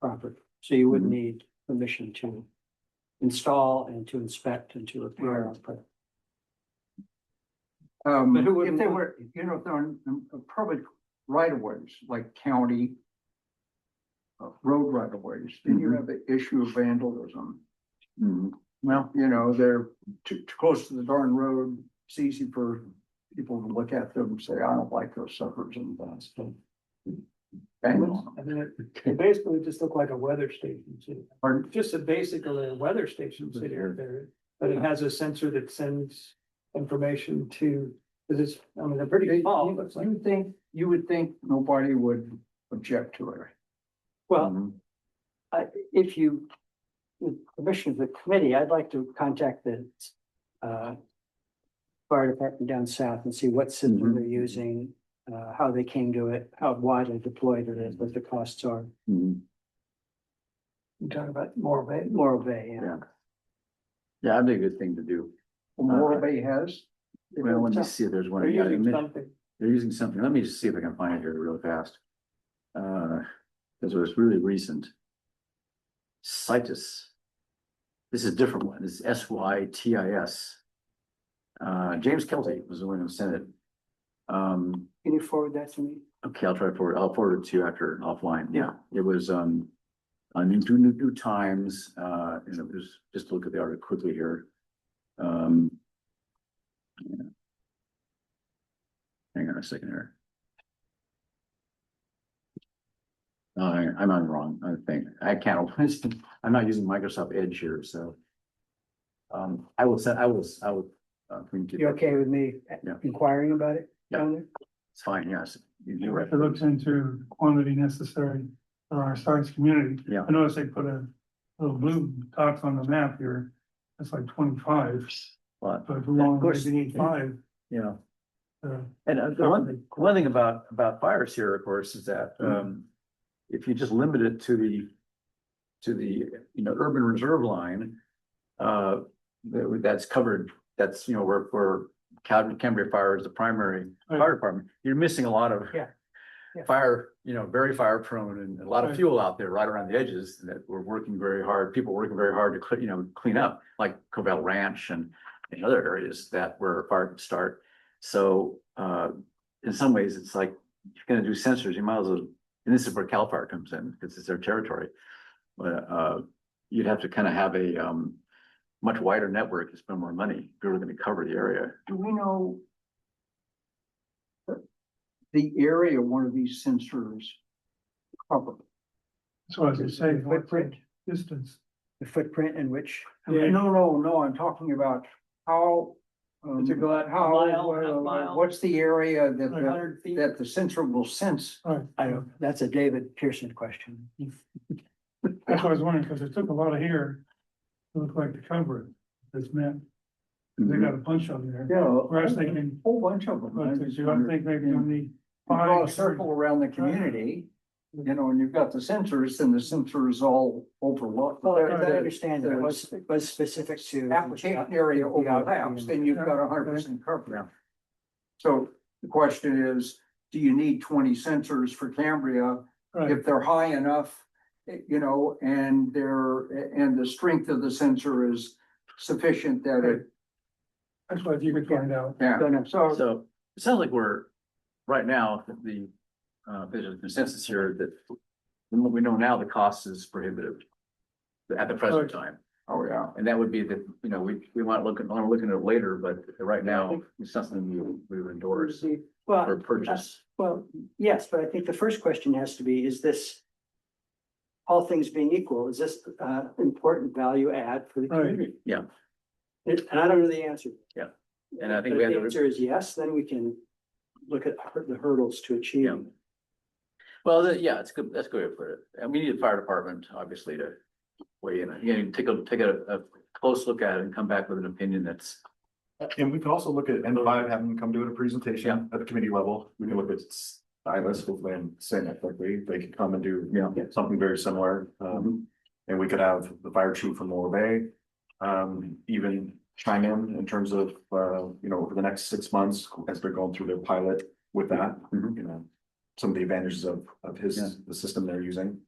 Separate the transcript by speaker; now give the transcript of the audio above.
Speaker 1: property. So you would need permission to install and to inspect and to repair. on property.
Speaker 2: Um,
Speaker 1: But who would
Speaker 2: if they
Speaker 1: want-
Speaker 2: were, you know, if they're on um, public right of ways, like county. uh, Road right of ways, then you
Speaker 1: Mm-hmm.
Speaker 3: Mhm.
Speaker 2: have the issue of vandalism.
Speaker 3: Mhm.
Speaker 2: Well, you know, they're too, too close to the darn road. It's easy for people to look at them and say, I don't like those suckers and that's. Bang on them.
Speaker 1: And then it- it basically just looked like a weather station too.
Speaker 2: Pardon?
Speaker 1: Just a basically a weather station sitting out there, but it has a sensor that sends information to, because it's, I mean, they're pretty small, but it's like,
Speaker 2: You think, you would think nobody would object to it.
Speaker 1: well,
Speaker 3: Mm-hmm.
Speaker 1: I, if you. With permission of the committee, I'd like to contact the uh. Fire department down south and see what system
Speaker 3: Mhm.
Speaker 1: they're using, uh, how they came to it, how widely deployed it is, what the
Speaker 3: Mm-hmm.
Speaker 1: costs are.
Speaker 3: Mhm.
Speaker 1: You're talking about Morro Bay? Morro Bay, yeah.
Speaker 3: Yeah. Yeah, that'd be a good thing to do.
Speaker 2: Moral Bay has.
Speaker 3: Well, let me see, if there's one.
Speaker 1: They're
Speaker 3: yeah, they
Speaker 1: using
Speaker 3: men-
Speaker 1: something.
Speaker 3: They're using something. Let me just see if I can find it here real fast. Uh, this was really recent. Citus. This is a different one. This is S Y T I S. Uh, James Kelty was the one who sent it. Um,
Speaker 1: Can you forward that to me?
Speaker 3: Okay, I'll try to forward, I'll forward it to you after offline. Yeah, it was, um, on New, New, New Times, uh, and it was, just look at the article quickly here. Um. yeah. Hang on a second here. No, Uh, I- I'm on wrong, I think. I can't, I'm not using Microsoft Edge here, so. Um, I will send, I will, I will. uh, communicate
Speaker 1: You
Speaker 3: that.
Speaker 1: okay with me
Speaker 3: Yeah.
Speaker 1: inquiring about it?
Speaker 3: Yeah.
Speaker 1: down there?
Speaker 3: It's fine, yes. You're right.
Speaker 4: It looks into quantity necessary for our science community.
Speaker 3: Yeah.
Speaker 4: I noticed they put a little blue box on the map here. That's like twenty-five,
Speaker 3: But,
Speaker 4: but we only
Speaker 3: course.
Speaker 4: need five.
Speaker 3: you know.
Speaker 4: uh,
Speaker 3: And uh, the one, thing- one thing about, about fires here, of course, is that,
Speaker 1: Mm-hmm.
Speaker 3: um, if you just limit it to the, to the, you know, urban reserve line, uh, that, that's covered, that's, you know, where, where Cal- Cambria Fire is the primary fire department, you're missing a lot of
Speaker 1: Yeah. Yeah.
Speaker 3: fire, you know, very fire prone and a lot of
Speaker 4: Right.
Speaker 3: fuel out there right around the edges that we're working very hard, people working very hard to, cle- you know, clean up, like Covell Ranch and and other areas that where fires start. So uh, in some ways, it's like, if you're gonna do sensors, you might as well, and this is where Cal Fire comes in, because it's their territory. But uh, you'd have to kind of have a um, much wider network to spend more money if you're gonna cover the area.
Speaker 2: Do we know? The area one of these sensors cover?
Speaker 4: So as I say,
Speaker 1: The Footprint,
Speaker 4: distance.
Speaker 1: the footprint in which,
Speaker 4: Yeah.
Speaker 2: No, no, no, I'm talking about how. um,
Speaker 1: To go out a mile, half
Speaker 2: How, uh,
Speaker 1: mile.
Speaker 2: what's the area that,
Speaker 4: Like
Speaker 2: the-
Speaker 1: hundred feet,
Speaker 2: that the sensor will sense?
Speaker 4: Right.
Speaker 1: I don't, that's a David Pearson question.
Speaker 4: That's what I was wondering, because it took a lot of here. to look like to cover it, this map. They got a bunch on there.
Speaker 3: Mm-hmm.
Speaker 2: Yeah.
Speaker 4: Where Mm-hmm. I was thinking-
Speaker 2: Whole bunch of them. I
Speaker 4: But
Speaker 2: just
Speaker 4: you don't
Speaker 2: wondered,
Speaker 4: think maybe
Speaker 2: you know,
Speaker 4: you need
Speaker 2: you Draw a
Speaker 4: five.
Speaker 2: circle around the community, you know, and you've got the sensors, and the sensor is all overlooked.
Speaker 1: Well,
Speaker 2: The-
Speaker 1: as I
Speaker 2: the-
Speaker 1: understand it, it was, it was specific to.
Speaker 2: application area overlaps, then you've got a hundred percent coverage. So the question is, do you need twenty sensors for Cambria
Speaker 4: Right,
Speaker 2: if they're high enough? eh, You know, and they're, and the strength of the sensor is sufficient that it,
Speaker 4: that's what you could find out.
Speaker 2: yeah,
Speaker 1: Gonna-
Speaker 2: so.
Speaker 3: So it sounds like we're, right now, the, uh, there's a consensus here that from what we know now, the cost is prohibitive at the present time.
Speaker 2: Oh, yeah.
Speaker 3: And that would be the, you know, we, we might look, at- we're looking at it later, but right now, it's something we, we would endorse or
Speaker 1: Well,
Speaker 3: purchase.
Speaker 1: well, yes, but I think the first question has to be, is this. All things being equal, is this uh important value add for the
Speaker 4: Right.
Speaker 1: community?
Speaker 3: Yeah.
Speaker 1: And and I don't know the answer.
Speaker 3: Yeah. And I think
Speaker 1: But
Speaker 3: we
Speaker 1: if
Speaker 3: have
Speaker 1: the
Speaker 3: to-
Speaker 1: answer is yes, then we can look at hur- the hurdles to
Speaker 3: Yeah.
Speaker 1: achieving.
Speaker 3: Well, that- yeah, it's good, that's good way to put it. And we need the fire department, obviously, to weigh in. You know, take a, take a, a close look at it and come back with an opinion that's
Speaker 5: And we could also look at N five, having them come do a
Speaker 3: Yeah.
Speaker 5: presentation at the committee level. We can look at ILS, hopefully, and saying that quickly, they could come and do.
Speaker 3: Yeah. Mm-hmm.
Speaker 5: Something very similar. Um, and we could have the fire chief from Lower Bay. Um, even chime in in terms of, uh, you know, over the next six months, as they're going through their pilot with that,
Speaker 3: Mhm.
Speaker 5: you know. Some of the advantages of, of his,
Speaker 3: Yeah.
Speaker 5: the system they're using.